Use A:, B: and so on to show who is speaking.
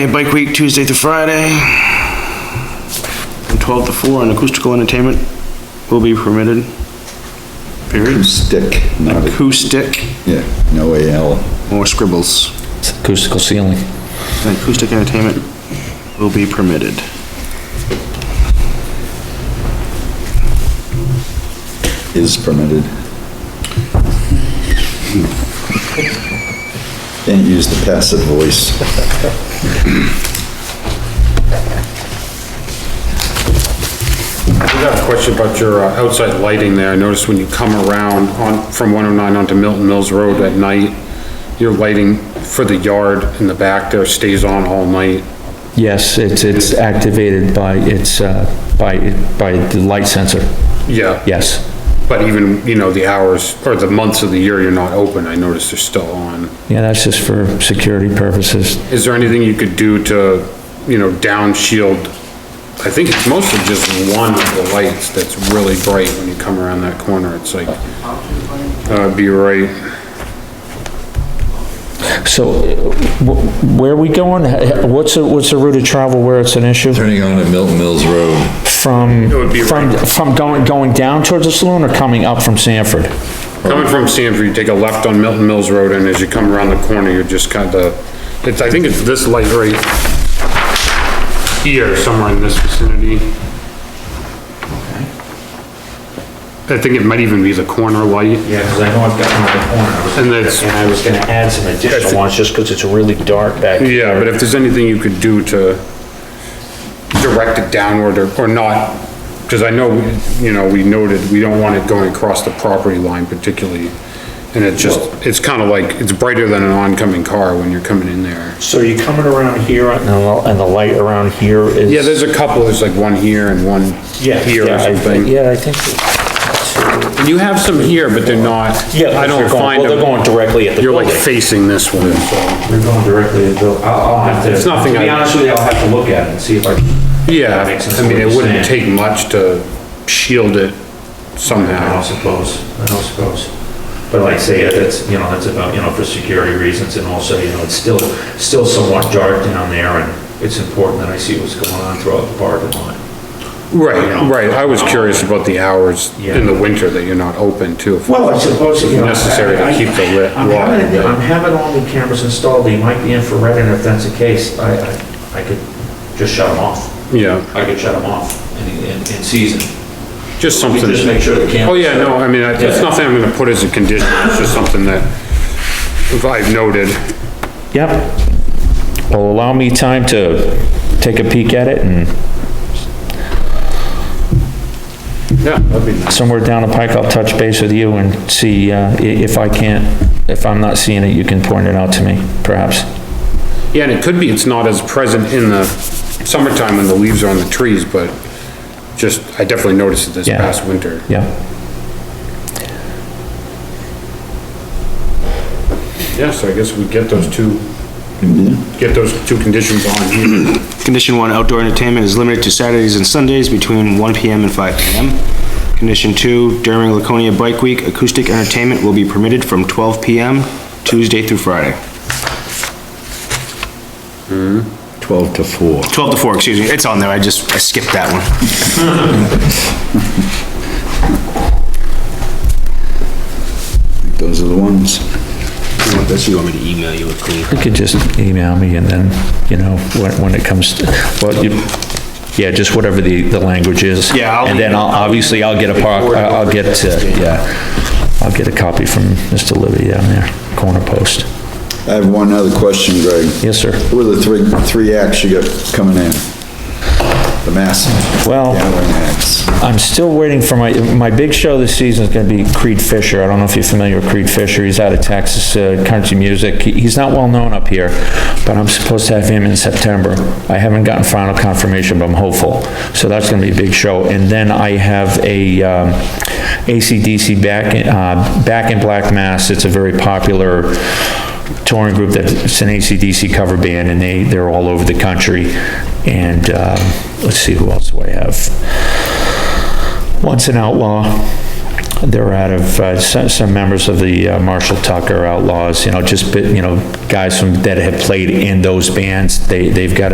A: And Bike week, Tuesday through Friday. From twelve to four, and acoustical entertainment will be permitted. Period.
B: Stick, not a,
A: Acoustic
B: yeah, no AL.
A: or scribbles.
C: It's acoustical ceiling.
A: And acoustic entertainment will be permitted.
B: is permitted. Can't use the passive voice.
D: I got a question about your uh, outside lighting there. I noticed when you come around on, from 109 onto Milton Mills Road at night, your lighting for the yard in the back there stays on all night.
C: Yes, it's, it's activated by its, uh, by, by the light sensor,
D: Yeah.
C: yes.
D: But even, you know, the hours or the months of the year you're not open, I noticed they're still on.
C: Yeah, that's just for security purposes.
D: Is there anything you could do to, you know, down shield? I think it's mostly just one of the lights that's really bright when you come around that corner. It's like, uh, be right.
C: So wh- where are we going? H- What's, the- what's the route of travel where it's an issue?
E: Turning on to Milton Mills Road,
C: From,
D: would be
C: from,
D: right. from
C: from going, going down towards the saloon or coming up from Sanford?
D: Coming from Sanford, you take a left on Milton Mills Road and as you come around the corner, you're just kinda, it's, I think it's this light right here, somewhere in this vicinity. I think it might even be the corner light.
F: Yeah, because I know I've got my
D: And
F: corner.
D: that's-
F: And I was gonna add some additional ones, just because it's really dark back.
D: Yeah, but if there's anything you could do to direct it downward or, or not, because I know, you know, we noted, we don't want it going across the property line particularly. And it just, it's kind of like, it's brighter than an oncoming car when you're coming in there.
F: So you're coming around here, and the, and the light around here is.
D: Yeah, there's a couple, there's like one here and one
F: Yeah,
D: here
F: yeah,
D: or
F: I-
D: something.
F: Yeah, I think.
D: And you have some here, but they're not,
F: Yeah, they're
D: I don't
F: going-
D: find
F: Well, they're going
D: them.
F: directly at the
D: You're
F: building.
D: like facing this one, so.
F: They're going directly at the, I'll, I'll have to.
D: It's nothing
F: To be
D: I-
F: honest with you, I'll have to look at it and see if I can.
D: Yeah,
F: Makes sense
D: I mean,
F: what
D: it
F: you're
D: wouldn't
F: saying.
D: take much to shield it
F: I don't
D: somehow.
F: suppose, I don't suppose. But like I say, that's, you know, that's about, you know, for security reasons and also, you know, it's still, still somewhat dark down there and it's important that I see what's going on throughout the parking lot.
D: Right, right, I was curious about the hours
F: Yeah.
D: in the winter that you're not open to. if-
F: Well, I suppose, you know.
D: Necessary to
F: I- I-
D: keep the lit-
F: I'm
D: light,
F: having,
D: yeah.
F: I'm having all the cameras installed, they might be infrared, and if that's the case, I, I, I could just shut them off.
D: Yeah,
F: I could shut them off in, in, in season. We
D: just something.
F: Just make sure the cameras.
D: Oh, yeah, no, I mean, I- it's
F: Yeah.
D: nothing I'm gonna put as a condition, it's just something that if I've noted.
C: Yep. Well, allow me time to take a peek at it and
D: Yeah, that'd be nice.
C: somewhere down the pike, I'll touch base with you and see, uh, i- if I can't, if I'm not seeing it, you can point it out to me, perhaps.
D: Yeah, and it could be it's not as present in the summertime when the leaves are on the trees, but just, I definitely noticed it this
C: Yeah.
D: past winter.
C: Yeah.
D: Yeah, so I guess we get those two,
F: Mm-hmm.
D: get those two conditions on here.
A: Condition one, outdoor entertainment is limited to Saturdays and Sundays between 1 PM and 5 PM. Condition two, during Laconia Bike Week, acoustic entertainment will be permitted from 12 PM Tuesday through Friday.
B: 12 to 4.
A: 12 to 4, excuse me, it's on there, I just, I skipped that one.
B: Those are the ones.
A: Unless you want me to email you a clean.
C: You could just email me and then, you know, when, when it comes, to- well, you, yeah, just whatever the, the language is.
A: Yeah, I'll-
C: And then I'll, obviously, I'll get a par, I'll get, uh, yeah, I'll get a copy from Mr. Libby down there, corner post.
B: I have one other question, Greg.
C: Yes, sir.
B: Who are the three, three acts you got coming in? The massive.
C: Well-
B: gathering acts.
C: I'm still waiting for my, my big show this season is gonna be Creed Fisher. I don't know if you're familiar with Creed Fisher. He's out of Texas, uh, country music. He- He's not well-known up here, but I'm supposed to have him in September. I haven't gotten final confirmation, but I'm hopeful. So that's gonna be a big show. And then I have a, um, ACDC Back, in- uh, Back in Black Mass. It's a very popular touring group that, it's an ACDC cover band, and they, they're all over the country. And, um, let's see, who else do I have? Once an Outlaw, They're out of, uh, some, some members of the uh, Marshall Tucker Outlaws, you know, just, bit- you know, guys from, that have played in those bands. They, they've got